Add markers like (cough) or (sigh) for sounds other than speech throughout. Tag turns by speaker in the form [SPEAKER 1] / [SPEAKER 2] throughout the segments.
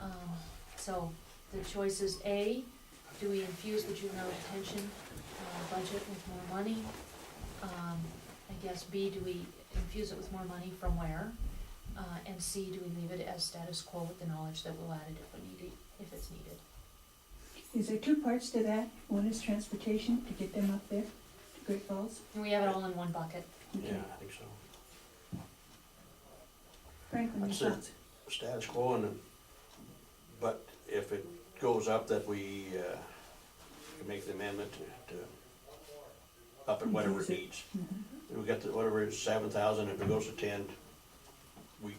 [SPEAKER 1] Um, So the choice is A, do we infuse the juvenile detention uh, budget with more money? Um, I guess B, do we infuse it with more money from where? Uh, And C, do we leave it as status quo with the knowledge that we'll add it if we need it, if it's needed?
[SPEAKER 2] Is there two parts to that? One is transportation to get them up there, to Great Falls.
[SPEAKER 1] And we have it all in one bucket.
[SPEAKER 2] Okay.
[SPEAKER 3] Yeah, I think so.
[SPEAKER 2] Franklin, your
[SPEAKER 3] That's it.
[SPEAKER 2] thoughts?
[SPEAKER 3] Status quo and, but if it goes up that we, uh, can make the amendment to, to up at whatever it needs.
[SPEAKER 2] Mhm.
[SPEAKER 3] We got the, whatever is seven thousand, if it goes to ten, we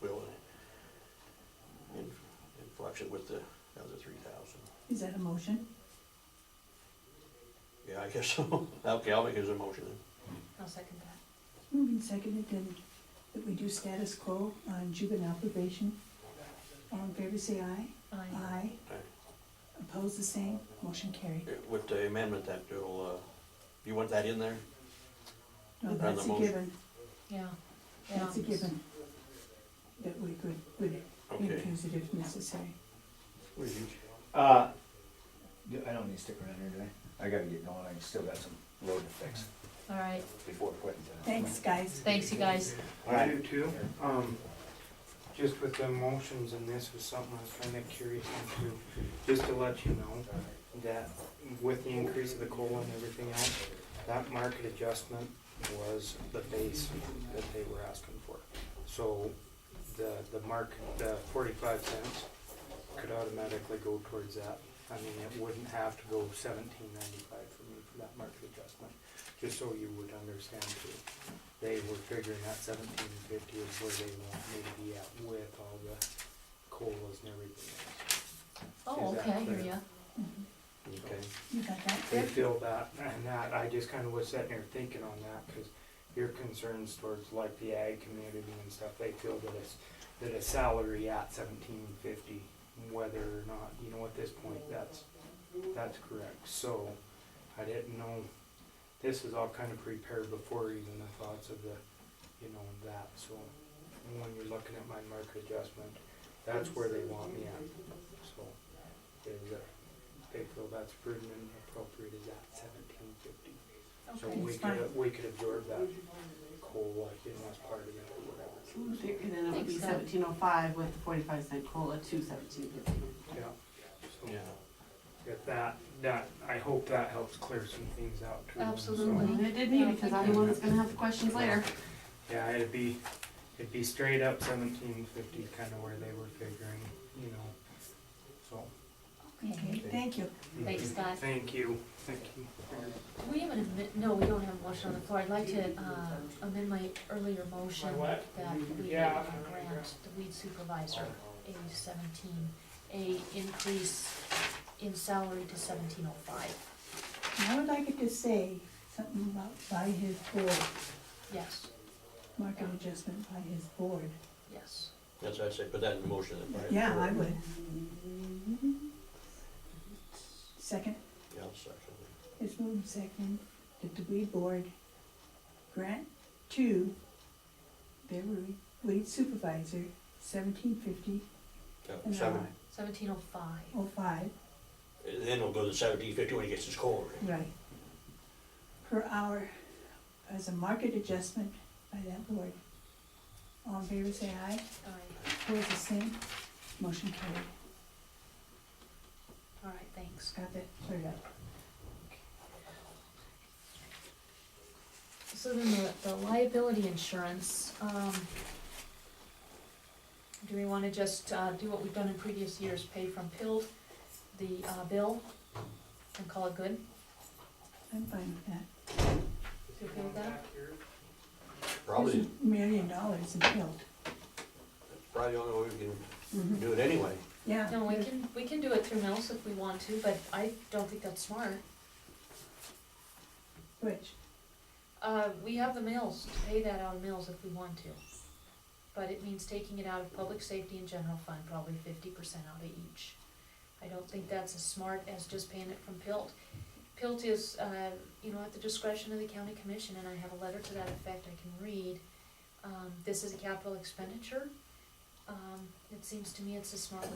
[SPEAKER 3] will in, influx it with the other three thousand.
[SPEAKER 2] Is that a motion?
[SPEAKER 3] Yeah, I guess so. (laughs) Okay, I'll make his emotion then.
[SPEAKER 1] I'll second that.
[SPEAKER 2] Moving seconded then that we do status quo on juvenile probation. All in favor, say aye.
[SPEAKER 1] Aye.
[SPEAKER 2] Aye.
[SPEAKER 3] Aye.
[SPEAKER 2] Opposed, the same. Motion carried.
[SPEAKER 3] Yeah, With the amendment that it'll, uh, you want that in there?
[SPEAKER 2] No,
[SPEAKER 3] And the
[SPEAKER 2] that's a
[SPEAKER 3] motion.
[SPEAKER 2] given.
[SPEAKER 1] Yeah. Yeah.
[SPEAKER 2] That's a given. That we could, would
[SPEAKER 3] Okay.
[SPEAKER 2] infuse it if necessary.
[SPEAKER 3] What do you-
[SPEAKER 4] Uh, do- I don't need to stick around here, do I? I gotta get going, I still got some road to fix
[SPEAKER 1] All right,
[SPEAKER 4] before quitting. time.
[SPEAKER 2] Thanks, guys.
[SPEAKER 1] thanks you guys.
[SPEAKER 4] All
[SPEAKER 5] I
[SPEAKER 4] right.
[SPEAKER 5] do too, um, just with the motions and this was something I was kinda curious into, just to let you know that with the increase of the coal and everything else, that market adjustment was the base that they were asking for. So the, the mark, the forty-five cents could automatically go towards that. I mean, it wouldn't have to go seventeen ninety-five for me for that market adjustment, just so you would understand too they were figuring out seventeen fifty is where they want me to be at with all the colas and everything. else.
[SPEAKER 1] Oh,
[SPEAKER 5] Is that
[SPEAKER 1] okay, I hear
[SPEAKER 5] clear?
[SPEAKER 1] ya.
[SPEAKER 2] Mhm.
[SPEAKER 3] Okay.
[SPEAKER 2] You got that,
[SPEAKER 5] They
[SPEAKER 2] Rick?
[SPEAKER 5] feel that, and that, I just kinda was sitting there thinking on that, cause your concerns towards like the ag community and stuff, they feel that it's, that a salary at seventeen fifty, whether or not, you know, at this point, that's, that's correct, so I didn't know, this is all kinda prepared before even the thoughts of the, you know, that, so when you're looking at my market adjustment, that's where they want me at, so, is, uh, they feel that's prudent and appropriate is at seventeen fifty. So
[SPEAKER 1] Okay.
[SPEAKER 5] we
[SPEAKER 2] it's fine.
[SPEAKER 5] could, we could absorb that COLA, you know, as part of it or whatever.
[SPEAKER 6] And then it would be
[SPEAKER 1] Thanks, Deb.
[SPEAKER 6] seventeen oh five with the forty-five cent cola to seventeen fifty.
[SPEAKER 5] Yeah. So
[SPEAKER 3] Yeah.
[SPEAKER 5] If that, that, I hope that helps clear some things out too. So,
[SPEAKER 1] Absolutely.
[SPEAKER 6] And it did me, because I'm the one that's gonna have the questions later.
[SPEAKER 5] Yeah, it'd be, it'd be straight up seventeen fifty, kinda where they were figuring, you know, so.
[SPEAKER 2] Okay, thank you.
[SPEAKER 1] Thanks, Scott.
[SPEAKER 5] Thank you, thank you. for your-
[SPEAKER 1] Do we have an, admi- no, we don't have a motion on the floor. I'd like to uh, amend my earlier motion
[SPEAKER 5] My what?
[SPEAKER 1] that we
[SPEAKER 5] Yeah.
[SPEAKER 1] grant the weed supervisor a seventeen, a increase in salary to seventeen oh five.
[SPEAKER 2] And I would like it to say something about by his board,
[SPEAKER 1] Yes,
[SPEAKER 2] market adjustment by his board.
[SPEAKER 1] yes.
[SPEAKER 3] That's, I'd say, put that in the motion. then, right?
[SPEAKER 2] Yeah, I would.
[SPEAKER 6] Mm-hmm.
[SPEAKER 2] Second,
[SPEAKER 3] Yeah, I'll second it.
[SPEAKER 2] it's moved second, that the weed board grant to their weed- weed supervisor seventeen fifty
[SPEAKER 3] Yeah,
[SPEAKER 2] an
[SPEAKER 3] seven,
[SPEAKER 2] hour,
[SPEAKER 1] Seventeen oh five.
[SPEAKER 2] oh five,
[SPEAKER 3] then it'll go to seventeen fifty when he gets his COLA. right?
[SPEAKER 2] right. Per hour as a market adjustment by that board. All in favor, say aye. Opposed, the same. Motion carried.
[SPEAKER 1] All right, thanks.
[SPEAKER 2] Got that cleared up.
[SPEAKER 1] So then the, the liability insurance, um, do we wanna just, uh, do what we've done in previous years, pay from PILT, the, uh, bill, and call it good?
[SPEAKER 2] I'm fine with that.
[SPEAKER 1] You okay with that?
[SPEAKER 3] Probably,
[SPEAKER 2] There's a Million dollars in built.
[SPEAKER 3] probably the only way we can do it anyway.
[SPEAKER 2] Yeah.
[SPEAKER 1] No, we can, we can do it through mills if we want to, but I don't think that's smart.
[SPEAKER 2] Which,
[SPEAKER 1] Uh, we have the mills, to pay that out of mills if we want to. But it means taking it out of public safety and general fund, probably fifty percent out of each. I don't think that's as smart as just paying it from Pilt. Pilt is, uh, you know, at the discretion of the county commission, and I have a letter to that effect I can read. Um, this is a capital expenditure. Um, it seems to me it's a smart way